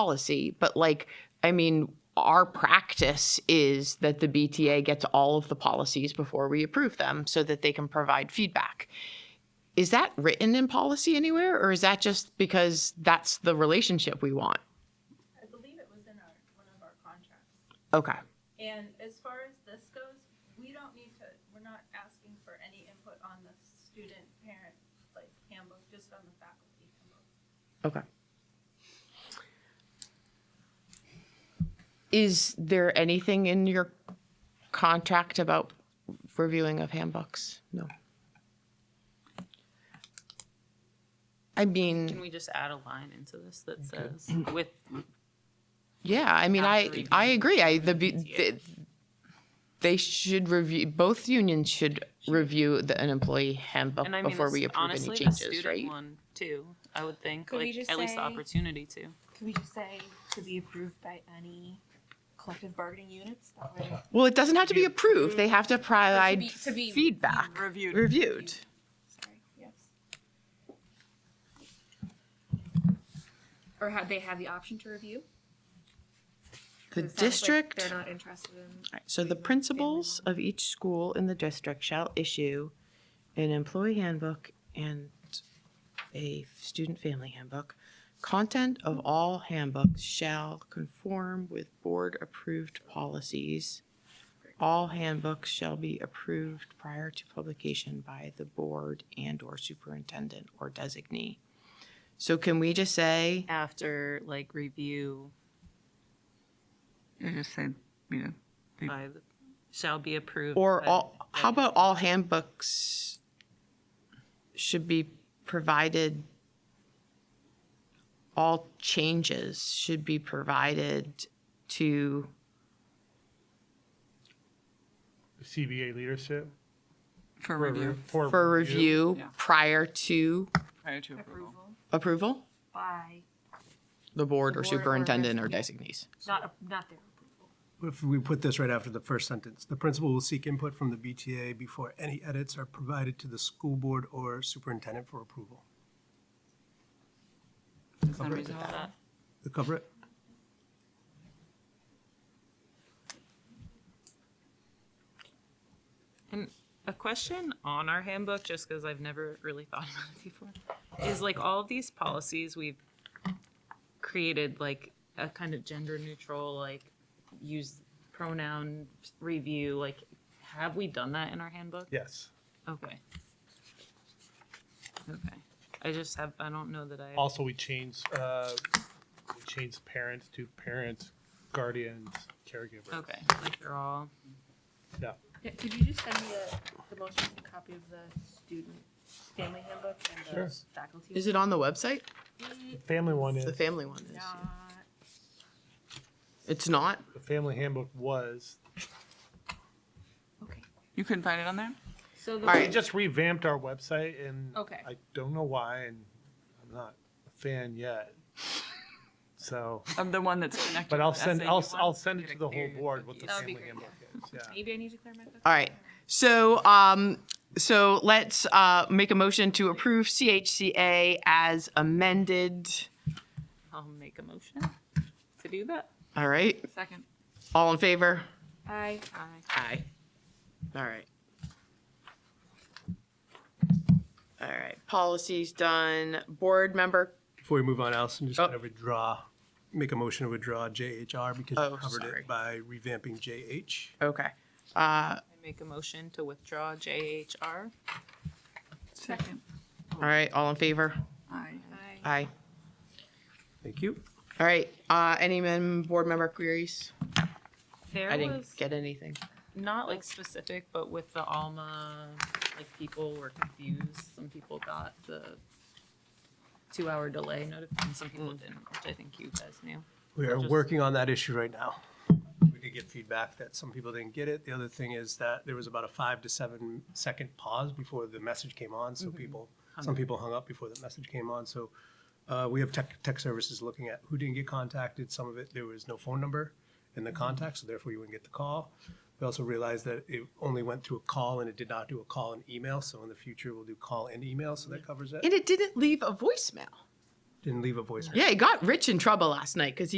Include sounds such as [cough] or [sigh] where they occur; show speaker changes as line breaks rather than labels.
policy, but like, I mean, our practice is that the BTA gets all of the policies before we approve them so that they can provide feedback. Is that written in policy anywhere, or is that just because that's the relationship we want?
I believe it was in our, one of our contracts.
Okay.
And as far as this goes, we don't need to, we're not asking for any input on the student parent like handbook, just on the faculty handbook.
Okay. Is there anything in your contract about reviewing of handbooks? No. I
Can
mean,
we just add a line into this that
[clears throat]
says with,
yeah, I mean,
After
I,
review.
I agree. I, the, B- the- they should review, both unions should review the, an employee handbook
and I mean,
before we
it's
approve any
honestly, the
changes,
student
right?
one too, I would think,
Could we
like,
just
at least the
say-
opportunity to.
Can we just say to be approved by any collective bargaining units? That way-
Well, it doesn't have to be approved. They have to
To
provide
be- to be
feedback.
Reviewed.
Reviewed.
Sorry, yes. Or have they have the option to review?
The
'Cause it sounds like
district.
They're not interested in.
So the principals of each school in the district shall issue an employee handbook and a student family handbook. Content of all handbooks shall conform with board-approved policies. All handbooks shall be approved prior to publication by the board and/or superintendent or designee. So can we just say?
After, like, review
I just said, you know,
by, the shall be approved.
Or
by-
all, how about all handbooks should be provided, all changes should be provided to,
CBA leadership.
for review
for review
Yeah.
prior to
prior to approval.
Approval
approval?
by,
The board or
board or
superintendent or designees.
not, not their approval.
If we put this right after the first sentence, the principal will seek input from the BTA before any edits are provided to the school board or superintendent for approval. Cover it,
that.
They cover it?
And a question on our handbook, just because I've never really thought about it before, is like all of these policies we've created like a kind of gender neutral, like use pronoun review, like have we done that in our handbook?
Yes.
Okay. Okay. I just have, I don't know that I,
Also, we changed, uh, we changed parents to parents, guardians, caregivers.
okay, like they're all,
Yeah.
Yeah, could you just send me the, the most recent copy of the student family handbook and
Sure.
the faculty?
Is it on the website?
Family one is,
The
the
family one is.
Not.
It's not?
family handbook was,
Okay,
You couldn't find it on there?
so the.
All
we
right.
just revamped our website and
Okay.
I don't know why and I'm not a fan yet. So,
Of the one that's connected.
but I'll
to the
send,
SAU
I'll,
one?
I'll send it
Get
to
a
the whole
clear
board what the
cookie.
That would be
family handbook is, yeah.
Maybe I need to clear my book.
All right. So, um, so let's, uh, make a motion to approve CHCA as amended.
I'll make a motion to do that.
All right.
Second.
All in favor?
Aye.
Aye.
Aye. All right. All right, policy's done. Board member,
Before we move on, Allison, just
Oh.
gonna withdraw, make a motion to withdraw JHR because
Oh,
we covered
sorry.
it by revamping JH.
okay. Uh,
I make a motion to withdraw JHR.
Second.
all right, all in favor?
Aye.
Aye.
Aye.
Thank you.
All right, uh, any men, board member queries?
There
I didn't
was-
get anything.
not like specific, but with the Alma, like people were confused. Some people got the two hour delay notification, some people didn't, which I think you guys knew.
We are
Just-
working on that issue right now. We did get feedback that some people didn't get it. The other thing is that there was about a five to seven second pause before the message came on, so people, some people Mm-hmm. hung up before the message came on, so. Uh, we have tech, tech services looking at who didn't get contacted, some of it, there was no phone number in the contact, so therefore you wouldn't get the call. We also realized that it only went through a call and it did not do a call and email, so in the future we'll do call and email, so that covers it.
And it didn't leave a voicemail.
and leave a voicemail.
Yeah, he got Rich in trouble last night because he